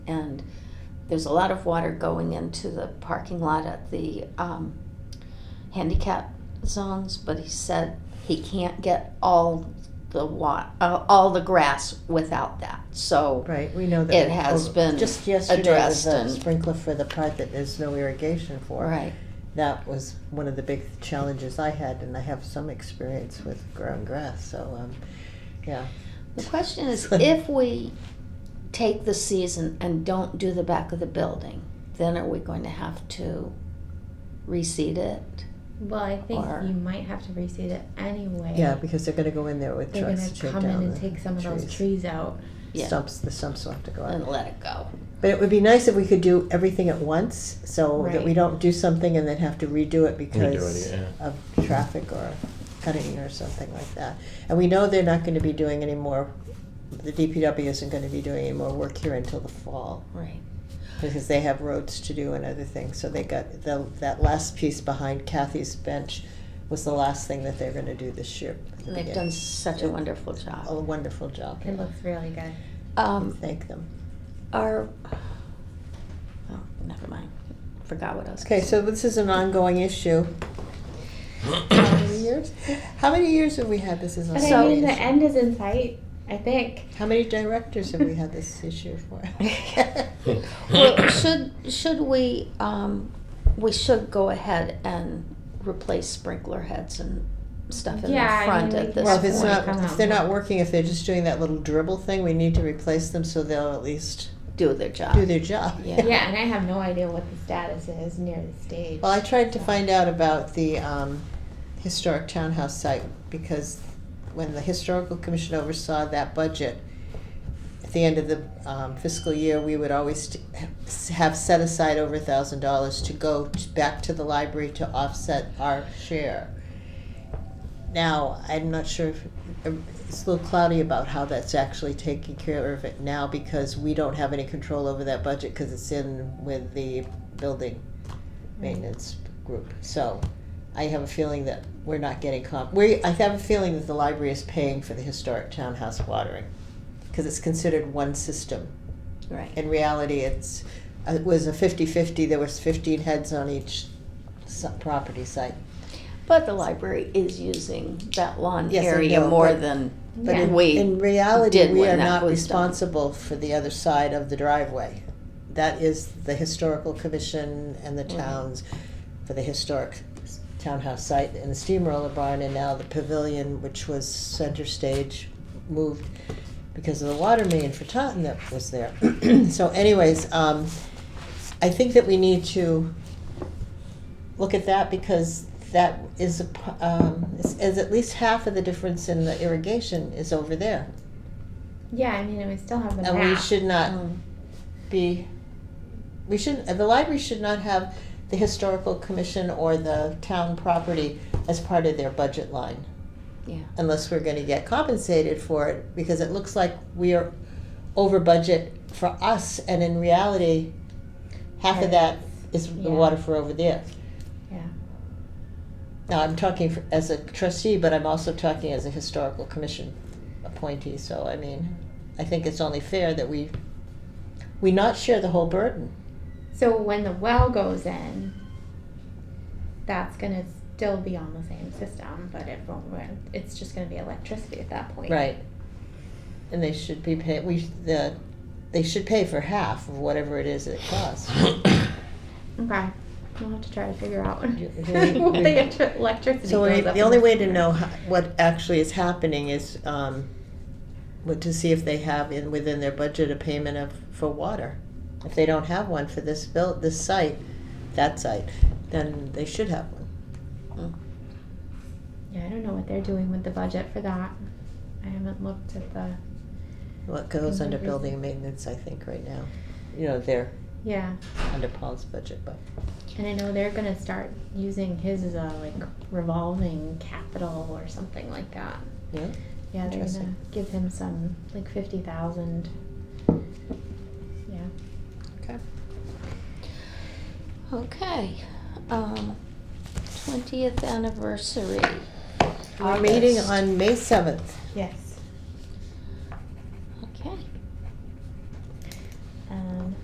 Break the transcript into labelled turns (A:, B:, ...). A: And there's a lot of water going into the parking lot at the um, handicap zones, but he said he can't get all the wa, uh, all the grass without that. So
B: Right, we know that.
A: It has been
B: Just yesterday was
A: addressed
B: a
A: and-
B: sprinkler for the part that there's no irrigation for.
A: right,
B: That was one of the big challenges I had, and I have some experience with ground grass, so, um, yeah.
A: the question is if we take the season and don't do the back of the building, then are we going to have to reseed it?
C: Well, I think
A: Or-
C: you might have to reseed it anyway.
B: Yeah, because they're gonna go in there with
C: they're
B: trucks
C: gonna
B: to take
C: come in
B: down
C: and
B: the
C: take some of those trees out.
A: Yeah.
B: Stumps, the stumps will have to go
A: And
B: out.
A: let it go.
B: But it would be nice if we could do everything at once, so that we
C: Right.
B: don't do something and then have to redo it
D: it,
B: because
D: yeah.
B: of traffic or cutting or something like that. And we know they're not gonna be doing any more, the DPW isn't gonna be doing any more work here until the fall,
A: Right.
B: because they have roads to do and other things, so they got, the, that last piece behind Kathy's bench was the last thing that they're gonna do this year.
A: And they've done such a wonderful job.
B: A wonderful job,
C: It looks really good.
A: Um,
B: thank them.
A: Our, oh, never mind. Forgot what I was.
B: Okay,
A: gonna
B: so this is an ongoing issue. How many years? How many years have we had this as an
C: But
A: I
C: I
A: So-
B: ongoing
C: mean,
A: mean,
C: the
B: issue?
C: end is in sight. I think.
B: How many directors have we had this issue for?
A: say. Well, should should we um, we should go ahead and replace sprinkler heads and stuff in
C: Yeah,
A: the
C: I
A: front
C: mean, we
A: at
C: can-
A: this
B: Well, uh, if it's
A: point.
B: not, if they're not working, if they're just doing that little dribble thing, we need to replace them so they'll at least
A: do their job.
B: do their job.
A: Yeah.
C: Yeah, and I have no idea what the status is near the stage.
B: Well, I tried to find out about the um, historic townhouse site because when the historical commission oversaw that budget, at the end of the um, fiscal year, we would always t- have set aside over a thousand dollars to go t- back to the library to offset our share. Now, I'm not sure if, um, it's a little cloudy about how that's actually taking care of it now because we don't have any control over that budget because it's in with the building maintenance group. So I have a feeling that we're not getting comp, we, I have a feeling that the library is paying for the historic townhouse watering. Because it's considered one system.
A: Right.
B: In reality, it's, uh, it was a fifty-fifty, there was fifteen heads on each s- property site.
A: But the library is using that lawn
B: Yes, I
A: area
B: know,
A: more
B: but-
A: than
B: But
C: Yeah.
B: in,
A: we
B: in reality,
A: did
B: we
A: when
B: are
A: that
B: not
A: was done.
B: responsible for the other side of the driveway. That is the historical commission and the
A: Mhm.
B: towns for the historic townhouse site and the steamroller barn and now the pavilion, which was center stage, moved because of the water main for Taunton that was there. so anyways, um, I think that we need to look at that because that is, a p- um, is, is at least half of the difference in the irrigation is over there.
C: yeah, I mean, and we still have the
B: And we
C: map.
B: should not
A: Mm.
B: be, we shouldn't, the library should not have the historical commission or the town property as part of their budget line
A: Yeah.
B: unless we're gonna get compensated for it, because it looks like we are over budget for us, and in reality, half of that is the water for over there.
C: Yeah.
B: Now, I'm talking for- as a trustee, but I'm also talking as a historical commission appointee, so I mean, I think it's only fair that we, we not share the whole burden.
C: So when the well goes in, that's gonna still be on the same system, but it won't. run- It's just gonna be electricity at that point.
B: Right. And they should be pay, we, the, they should pay for half of whatever it is that it costs.
C: Okay. We'll have to try to figure out
B: Do- do we-
C: what the electri- electricity
B: So
C: goes
B: we-
C: up
B: the
C: in
B: only
C: the
B: way to
C: summer.
B: know ho- what actually is happening is, um, what, to see if they have in, within their budget a payment of, for water. If they don't have one for this bill, this site, that site, then they should have one.
A: mm.
C: Yeah, I don't know what they're doing with the budget for that. I haven't looked at the.
B: What goes under
C: Mhm.
B: building maintenance, I think, right now. You know, they're
C: Yeah,
B: under Paul's budget, but.
C: and I know they're gonna start using his as a like revolving capital or something like that.
B: Yeah.
C: Yeah, they're gonna
B: Interesting.
C: give him some like fifty thousand. Yeah.
B: Okay.
A: Okay. Um, 20th anniversary.
B: We're meeting
A: August.
B: on May seventh.
C: Yes. Um,